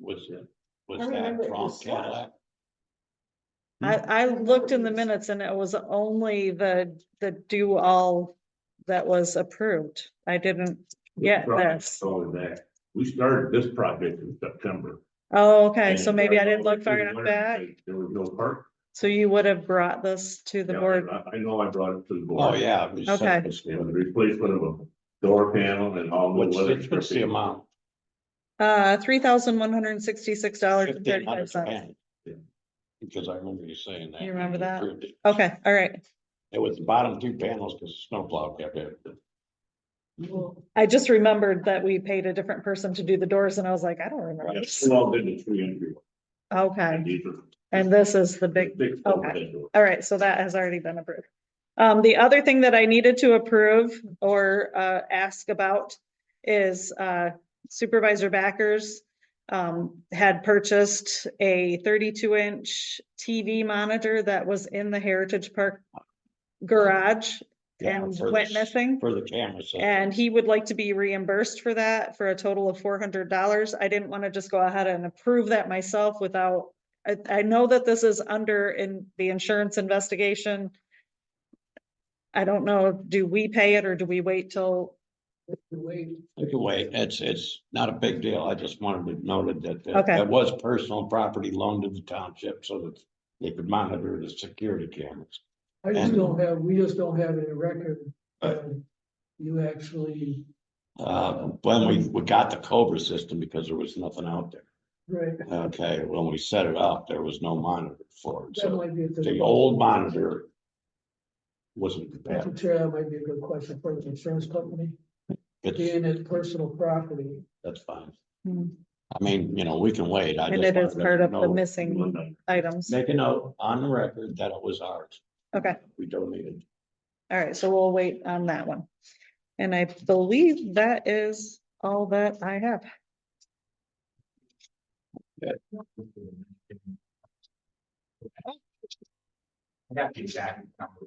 Was it, I was remember that it from was slow. Cadillac? I, I remember looked in it the was- minutes and it was only the, the do all that was approved. I didn't get this. Going back, we started this project in September. Oh, okay, and so maybe I started didn't look far through the enough winter back. because There was no park. So you would have brought this to the Yeah, board. I, I know I brought it to the Oh, board. yeah. it was Okay. something It similar. was the replacement of a door panel and all the What's, weather the- what's the stripping. amount? Uh, three thousand one hundred and sixty-six dollars and Fifteen thirty-five hundred cents. grand. Because I remember you saying that. You remember when that? approved it. Okay, all right. It was the bottom two panels because the snowplow kept it. I just remembered that we paid a different person to do the doors and I was like, I don't remember. Yes, this. we all did the tree entry. Okay, And these are and this is the big big folks okay. that do it. All right, so that has already been approved. Um, the other thing that I needed to approve or, uh, ask about is, uh, Supervisor Backers, um, had purchased a thirty-two inch TV monitor that was in the Heritage Park garage Yeah, and for the- went missing. For the camera. system. And he would like to be reimbursed for that for a total of four hundred dollars. I didn't want to just go ahead and approve that myself without. I, I know that this is under in the insurance investigation. I don't know, do we pay it or do we wait till, Either way, it's, it's not a big deal. I just wanted it noted that that Okay. that was personal property loaned to the township so that they could monitor the security cameras. I just And- don't have, we just don't have any record. of You actually, Uh, when we, we got the Cobra system because there was nothing out there. right, Okay, when we set it up, there was no monitor for it. that So might be. a good- the old monitor wasn't compatible. Mr. Chair, that might be a good question for the insurance company, It's, being it personal property. that's fine. Hmm. I mean, you know, we can wait. I and just it is wanted to part of the know- missing items. Make a note on the record that it was ours. Okay. We donated. All right, so we'll wait on that one. And I believe that is all that I have. That's the exact number.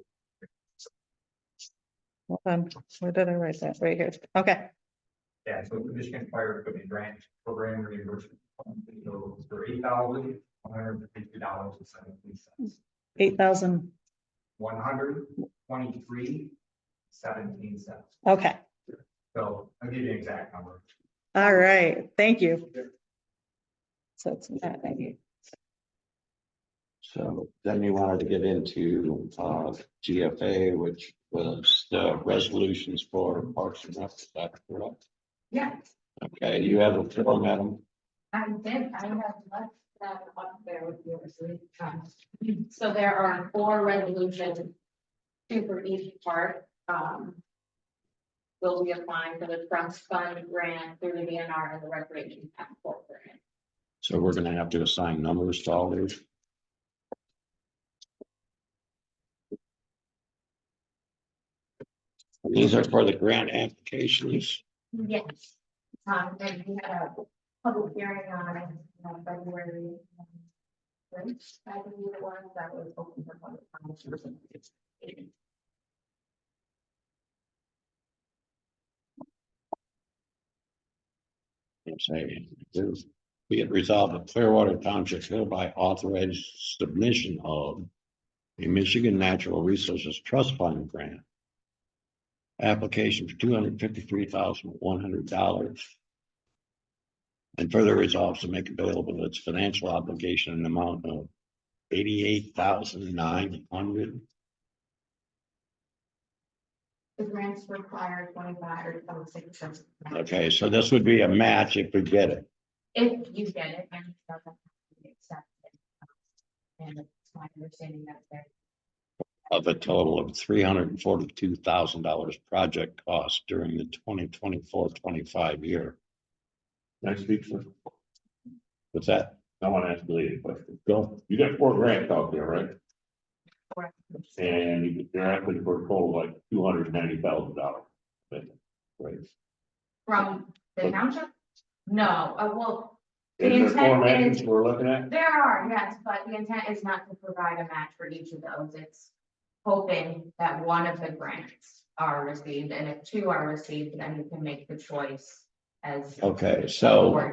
Hold on, where did I write that? Right here. Okay, Yeah, so Michigan Fire Equipment Grant Program reimbursement. So for eight thousand, one hundred and fifty dollars and seventeen cents, eight thousand. one hundred twenty-three seventeen cents. Okay. So I'll give you an exact number. All right, thank you. So it's not, thank you. So then you wanted to get into uh GFA, which was the resolutions for Parks and Rec. is that correct? Yes, Okay, you have a floor, madam. I did, I have left that up there with yours. um, So there are four resolutions. Two for each part, um. Will be applying for the trust fund grant through the DNR and the recreation task force grant. So we're gonna have to assign numbers to all these. These are for the grant applications. Yes. Um, and we had a public hearing on it, on February. um, first, I believe it was, that was open for public comment. I'm saying, this, be it resolved that Clearwater Township hereby authorized submission of a Michigan Natural Resources Trust Fund grant. Application for two hundred fifty-three thousand one hundred dollars. And further resolves to make available its financial obligation in the amount of eighty-eight thousand nine hundred. The grants require twenty-five or twenty-six. cents. Okay, so this would be a match if we get it. If you get it, and it doesn't have to be accepted. um, And it's my understanding that there, of a total of three hundred and forty-two thousand dollars project cost during the 2024-25 year. Next week, sir, What's that? I want to ask Billy a question. Go. You got four grants out there, right? Correct. And you're asking for a total of like two hundred ninety thousand dollars. Right. from the township? No, uh, well, The Is there four intent grants is- we're looking at? there are, yes, but the intent is not to provide a match for each of those. It's hoping that one of the grants are received, and if two are received, then you can make the choice as. Okay, so. Or